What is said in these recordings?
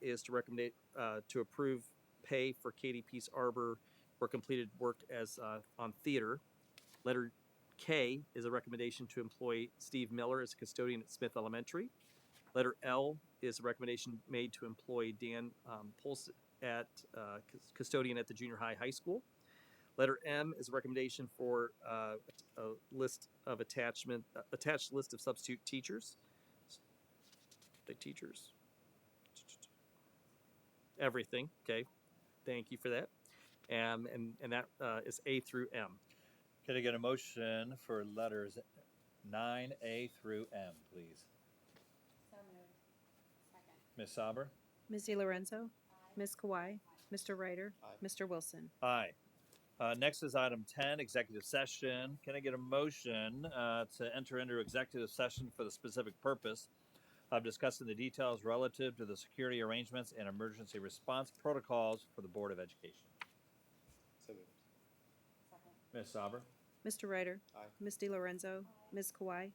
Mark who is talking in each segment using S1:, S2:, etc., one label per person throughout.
S1: is to recommend uh, to approve pay for Katie Peace Arbor for completed work as uh, on theater. Letter K is a recommendation to employ Steve Miller as a custodian at Smith Elementary. Letter L is a recommendation made to employ Dan um, Pulse at uh, cus- custodian at the junior high high school. Letter M is a recommendation for uh, a list of attachment uh, attached list of substitute teachers. The teachers. Everything. Okay. Thank you for that. Um, and and that uh, is A through M.
S2: Could I get a motion for letters nine A through M, please?
S3: So moved. Second.
S2: Ms. Sauber?
S4: Ms. DiLorenzo, Ms. Kawhi, Mr. Ryder,
S5: Aye.
S4: Mr. Wilson.
S2: Aye. Uh, next is item ten, executive session. Can I get a motion uh, to enter into executive session for the specific purpose of discussing the details relative to the security arrangements and emergency response protocols for the Board of Education?
S5: So moved.
S3: Second.
S2: Ms. Sauber?
S4: Mr. Ryder,
S5: Aye.
S4: Ms. DiLorenzo, Ms. Kawhi,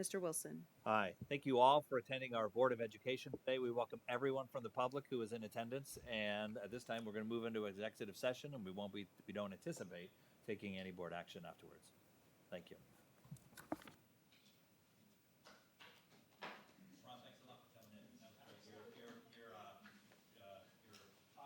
S4: Mr. Wilson.
S2: Hi, thank you all for attending our Board of Education today. We welcome everyone from the public who is in attendance, and at this time, we're going to move into executive session, and we won't be, we don't anticipate taking any board action afterwards. Thank you.